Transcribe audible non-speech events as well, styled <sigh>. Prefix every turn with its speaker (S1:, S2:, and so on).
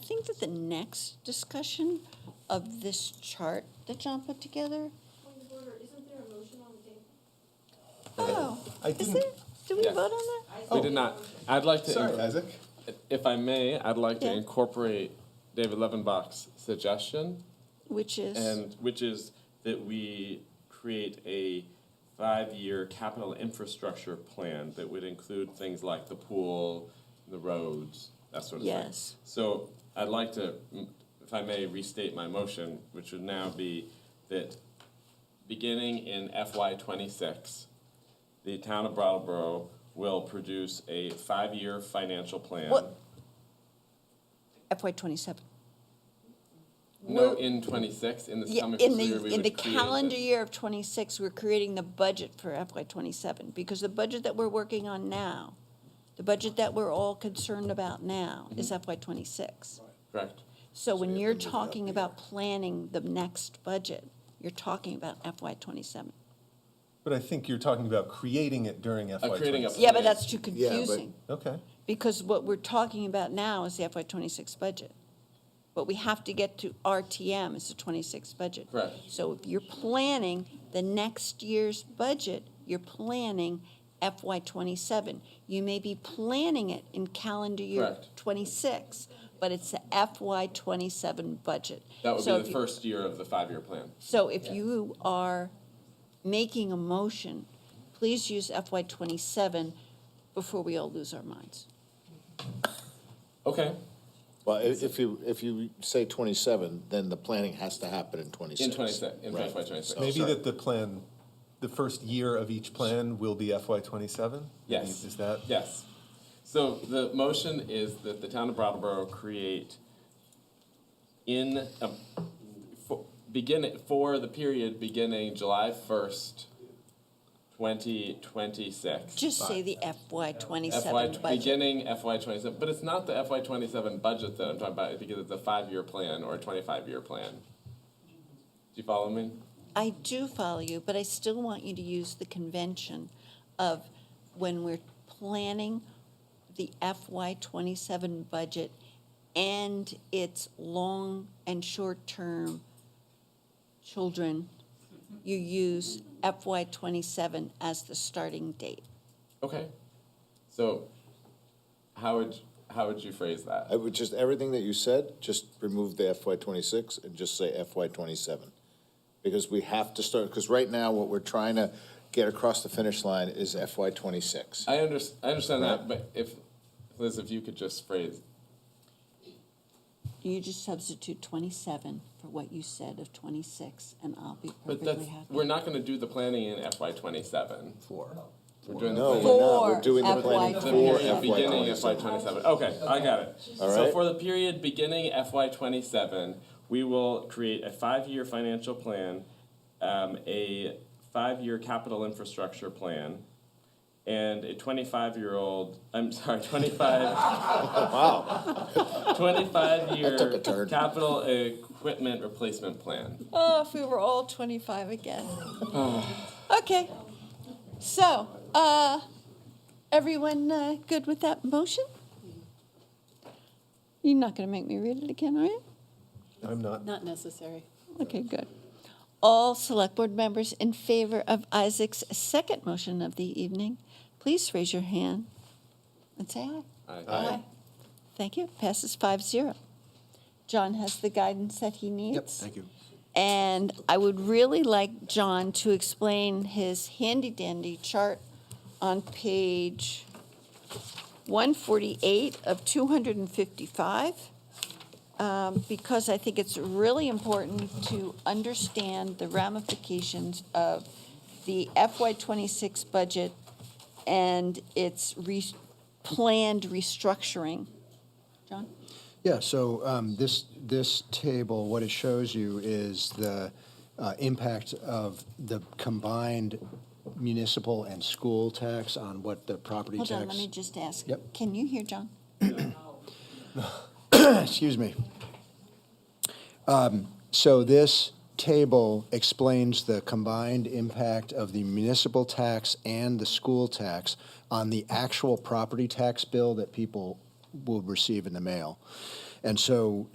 S1: the next discussion of this chart that John put together?
S2: Point of order, isn't there a motion on the table?
S1: Oh,
S3: I
S1: is
S3: didn't-
S1: it? Did we
S4: Yeah.
S1: vote on that?
S4: We did not. I'd like to,
S3: Sorry,
S4: inc-
S3: Isaac.
S4: if I may, I'd like to
S1: Yeah.
S4: incorporate David Levenbach's suggestion,
S1: Which is,
S4: and which is that we create a five-year capital infrastructure plan that would include things like the pool, the roads, that sort of thing.
S1: yes,
S4: So I'd like to, mm, if I may, restate my motion, which would now be that beginning in FY twenty-six, the town of Brattleboro will produce a five-year financial plan.
S1: What? FY twenty-seven.
S4: No,
S1: Will-
S4: in twenty-six, in this
S1: Yeah,
S4: coming
S1: in
S4: fiscal year, we would
S1: the, in the
S4: create a-
S1: calendar year of twenty-six, we're creating the budget for FY twenty-seven, because the budget that we're working on now, the budget that we're all concerned about now
S4: Mm-hmm.
S1: is FY twenty-six.
S4: Correct.
S1: So when
S3: you
S1: you're
S3: have to move it up
S1: talking
S3: a
S1: about planning the next budget, you're talking about FY twenty-seven.
S3: But I think you're talking about creating it during FY
S4: Uh, creating a.
S3: twenty.
S1: Yeah, but
S4: plan.
S1: that's too confusing,
S3: Okay,
S1: because what we're talking about now is the FY twenty-six budget. But we have to get to RTM is the twenty-six budget.
S4: Correct.
S1: So if you're planning the next year's budget, you're planning FY twenty-seven. You may be planning it in calendar year
S4: Correct.
S1: twenty-six, but it's the FY twenty-seven budget.
S4: That
S1: So
S4: would
S1: if
S4: be the
S1: you-
S4: first year of the five-year plan.
S1: So if you are making a motion, please use FY twenty-seven before we all lose our minds.
S4: Okay,
S5: Well, i- if you, if you say twenty-seven, then the planning has to happen in twenty-six.
S4: in twenty-six, in
S5: Right.
S4: FY twenty-six.
S3: maybe
S5: sorry.
S3: that the plan, the first year of each plan will be FY twenty-seven?
S4: Yes.
S3: Is that?
S4: Yes. So the motion is that the town of Brattleboro create in, um, for, begin, for the period beginning July first, twenty twenty-six.
S1: Just say the FY
S4: FY,
S1: twenty-seven budget.
S4: beginning FY twenty-seven, but it's not the FY twenty-seven budget that I'm talking about, because it's a five-year plan or a twenty-five-year plan. Do you follow me?
S1: I do follow you, but I still want you to use the convention of when we're planning the FY twenty-seven budget and its long and short-term children, you use FY twenty-seven as the starting date.
S4: Okay. So, how would, how would you phrase that?
S5: I would just, everything that you said, just remove the FY twenty-six and just say FY twenty-seven. Because we have to start, because right now, what we're trying to get across the finish line is FY twenty-six.
S4: I under, I understand that,
S5: Right.
S4: but if, Liz, if you could just phrase,
S1: You just substitute twenty-seven for what you said of twenty-six, and I'll be
S4: but
S1: perfectly
S4: that's,
S1: happy.
S4: we're not gonna do the planning in FY twenty-seven.
S3: Four.
S4: We're doing
S5: No,
S4: the
S5: we're
S4: planning.
S5: not,
S1: For
S5: we're doing the
S1: FY
S5: planning
S4: The
S5: for
S4: period
S5: FY
S4: beginning FY
S5: twenty-seven.
S4: twenty-seven, okay, I got it.
S5: All
S4: So
S5: right.
S4: for the period beginning FY twenty-seven, we will create a five-year financial plan, um, a five-year capital infrastructure plan, and a twenty-five-year-old, I'm sorry, twenty-five
S5: Wow,
S4: 25 year
S5: took a turn.
S4: capital equipment replacement plan.
S1: Oh, if we were all 25 again. okay. So, uh, everyone uh, good with that motion? You're not going to make me read it again, are you?
S3: I'm not,
S6: Not necessary.
S1: Okay, good. All select board members in favor of Isaac's second motion of the evening, please raise your hand and say aye. Aye. Thank you. Passes five zero. John has the guidance that he needs. thank you. And I would really like John to explain his handy dandy chart on page one forty-eight of two hundred and fifty-five. Um, because I think it's really important to understand the ramifications of the FY twenty-six budget and its re- planned restructuring. John?
S7: Yeah, so um, this, this table, what it shows you is the uh, impact of the combined municipal and school tax on what the property
S1: Hold on, let me
S7: <coughs> tax.
S1: just ask.
S7: Yep.
S1: Can you hear John?
S7: Excuse me. Um, So this table explains the combined impact of the municipal tax and the school tax on the actual property tax bill that people will receive in the mail. And so